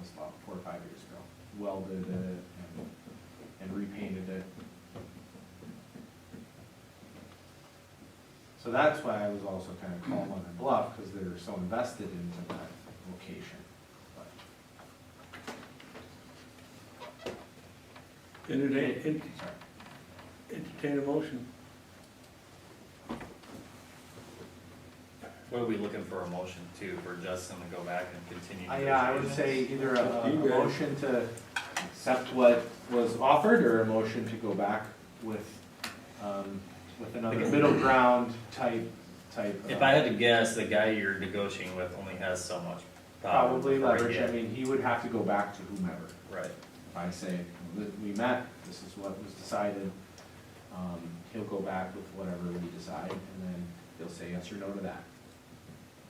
this lot four or five years ago, welded it and, and repainted it. So that's why I was also kind of calling on their bluff, because they were so invested into that location. But Entertain, en- Sorry. entertain a motion. What are we looking for a motion to, for Justin to go back and continue? I, Uh, yeah, I would say either a, a motion to accept what was offered or a motion to go back with, um, with another middle ground type, type. uh, If I had to guess, the guy you're negotiating with only has so much. power Probably before he leverage, I hit. mean, he would have to go back to whomever. Right, If I say, "Look, we met, this is what was decided, um, he'll go back with whatever we decide and then he'll say yes or no to that.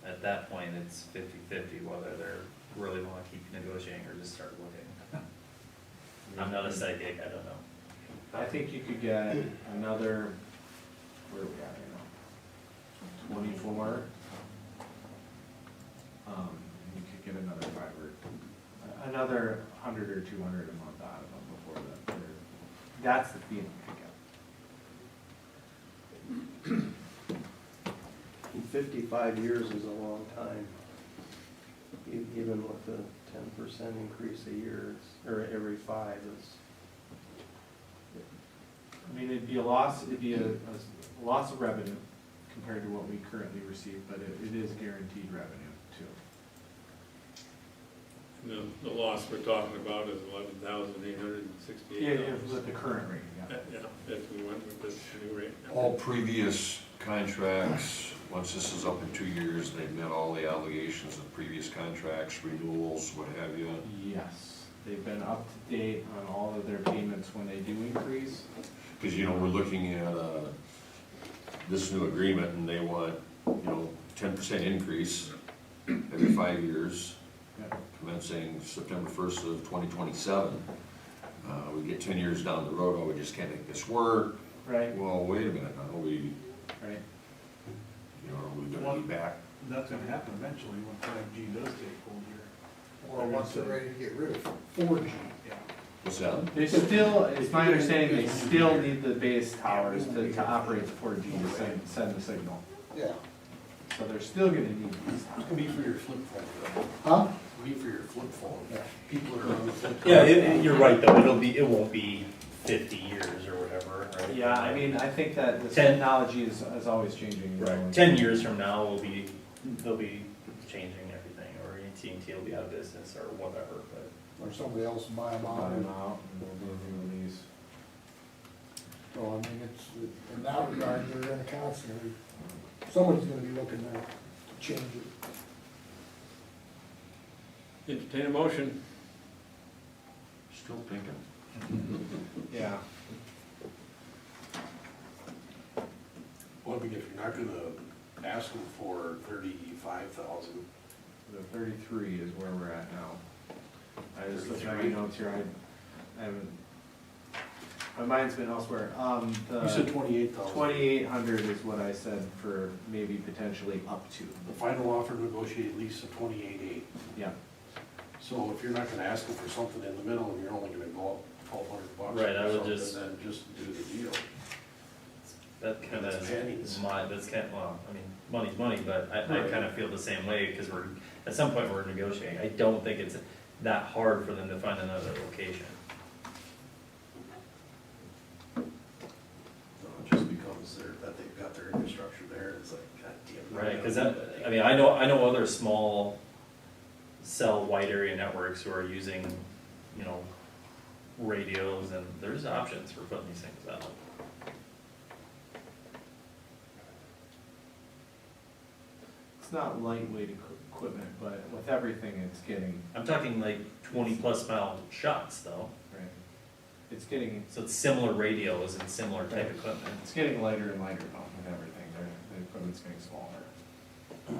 at that point, it's fifty-fifty whether they're really wanna keep negotiating or just start looking. I'm not a psychic, I don't know. I think you could get another, where are we at right now? Twenty-four. Um, and you could get another five or, another hundred or two hundred a month out of them before that, they're- that's the feeling I get. And Fifty-five years is a long time. E- Even with the ten percent increase a year, it's- or every five is, I mean, it'd be a loss, it'd be a, a loss of revenue compared to what we currently receive, but it, it is guaranteed revenue too. The, the loss we're talking about is eleven thousand eight hundred and sixty-eight dollars. With the current rate, yeah. Yeah, if we went with this new rate. Oh. All previous contracts, once this is up in two years, they've met all the obligations of previous contracts, renewals, what have you. Yes, they've been up to date on all of their payments when they do increase. Because, you know, we're looking at, uh, this new agreement and they want, you know, ten percent increase every five years, Yeah. commencing September first of twenty twenty-seven. Uh, we get ten years down the road, oh, we just can't make this work. Right, Well, wait a minute, now we, you right. know, are we gonna be back? That's gonna happen eventually when five G does take hold here. Or once they're ready to get rid of four G. Yeah. What's that? They still, it's my understanding, they still need the base towers to, to operate the four G to send, send the signal. Yeah, So they're still gonna need these it's towers. gonna be for your flip phone. Huh? It'll be for your flip phone. People that are on the flip. phone. Yeah, you're right, though, it'll be, it won't be fifty years or whatever, right? Yeah, I mean, I think that the Ten. technology is, is always changing. you know, Right, like- ten years from now, we'll be, they'll be changing everything, or AT&T will be out of business or whatever, but. Or somebody else buy them out. Buy them out and we'll do the release. So I mean, it's, in that regard, they're in a constant, someone's gonna be looking there to change it. Entertain a motion. Still thinking. Yeah. Well, but if you're not gonna ask them for thirty-five thousand. The thirty-three is where we're at now. I just looked at my notes here, I, I haven't, my mind's been elsewhere. Um, the. You said twenty-eight thousand. Twenty-eight hundred is what I said for maybe potentially up to, The final offer negotiated lease of twenty-eight eight. yeah. So if you're not gonna ask them for something in the middle and you're only gonna go up twelve hundred bucks. Right, I or would something, just- Then just do the deal. That kind That's pennies. of, my, that's kind of, well, I mean, money's money, but I, I Right. kind of feel the same way, because we're, at some point, we're negotiating. I don't think it's that hard for them to find another location. So it just becomes their, that they've got their infrastructure there and it's like, god damn. Right, because that, I mean, I know, I know other small cell wide area networks who are using, you know, radios, and there's options for putting these things out. It's not lightweight equi- equipment, but with everything, it's getting, I'm talking like twenty-plus mile shots, though, right, it's getting, so it's similar radios and similar type equipment. it's getting lighter and lighter though with everything, the, the equipment's getting smaller.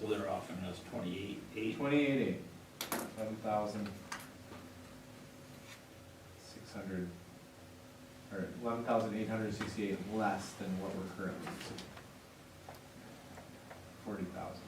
So they're offering us twenty-eight, eight, Twenty-eight eight, seven thousand six hundred, or eleven thousand eight hundred sixty-eight less than what we're currently using. Forty thousand.